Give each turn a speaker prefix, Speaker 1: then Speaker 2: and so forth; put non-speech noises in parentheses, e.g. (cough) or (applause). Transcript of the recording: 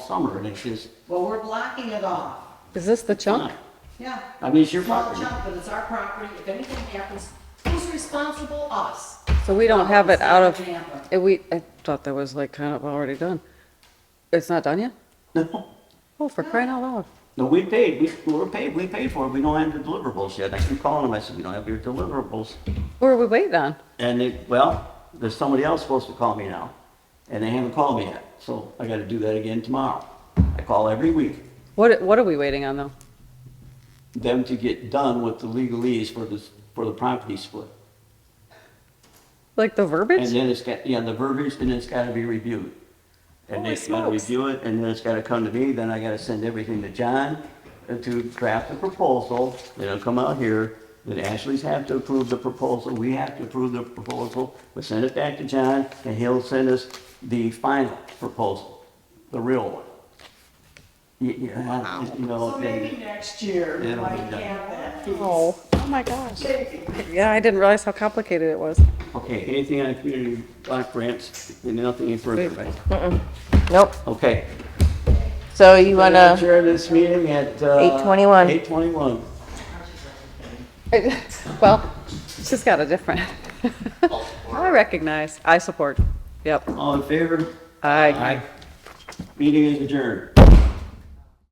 Speaker 1: summer, and it's just
Speaker 2: Well, we're blocking it off.
Speaker 3: Is this the chunk?
Speaker 1: not.
Speaker 2: Yeah.
Speaker 1: I mean, it's your
Speaker 2: Small
Speaker 1: property.
Speaker 2: chunk, But it's our property. If anything happens, who's responsible? Us.
Speaker 3: So we don't have it out of,
Speaker 2: Example.
Speaker 3: eh, we, I thought that was like kind of already done. It's not done yet?
Speaker 1: No,
Speaker 3: Oh, for crying out loud.
Speaker 1: no, we paid, we, we were paid, we paid for it, we don't have your deliverables yet. I keep calling them, I said, we don't have your deliverables.
Speaker 3: What are we waiting on?
Speaker 1: And it, well, there's somebody else supposed to call me now, and they haven't called me yet, so I gotta do that again tomorrow. I call every week,
Speaker 3: What, what are we waiting on though?
Speaker 1: them to get done with the legalese for this, for the property split.
Speaker 3: Like the
Speaker 1: And
Speaker 3: verbiage?
Speaker 1: then it's got, yeah, the verbiage, and it's gotta be reviewed. And
Speaker 3: Holy
Speaker 1: they gotta
Speaker 3: smokes.
Speaker 1: review it, and then it's gotta come to me, then I gotta send everything to John uh, to draft the proposal, then it'll come out here, then Ashley's have to approve the proposal, we have to approve the proposal, we send it back to John, and he'll send us the final proposal, the real one. Y- Yeah, you know,
Speaker 2: So maybe
Speaker 1: and-
Speaker 2: next year, we
Speaker 1: It'll
Speaker 2: might
Speaker 1: be
Speaker 2: have
Speaker 1: done.
Speaker 2: that piece.
Speaker 3: Oh, oh my gosh. Yeah, I didn't realize how complicated it was.
Speaker 1: okay, anything on community block grants, and nothing further, right?
Speaker 4: Nope.
Speaker 1: Okay.
Speaker 4: So you want
Speaker 1: Madam
Speaker 4: to,
Speaker 1: Chair, this meeting at, uh.
Speaker 4: 8:21.
Speaker 1: Eight twenty-one.
Speaker 3: (laughs) Well, she's got a different. (laughs) I recognize. I support. Yep.
Speaker 1: All in favor?
Speaker 3: I.
Speaker 1: Meeting is adjourned.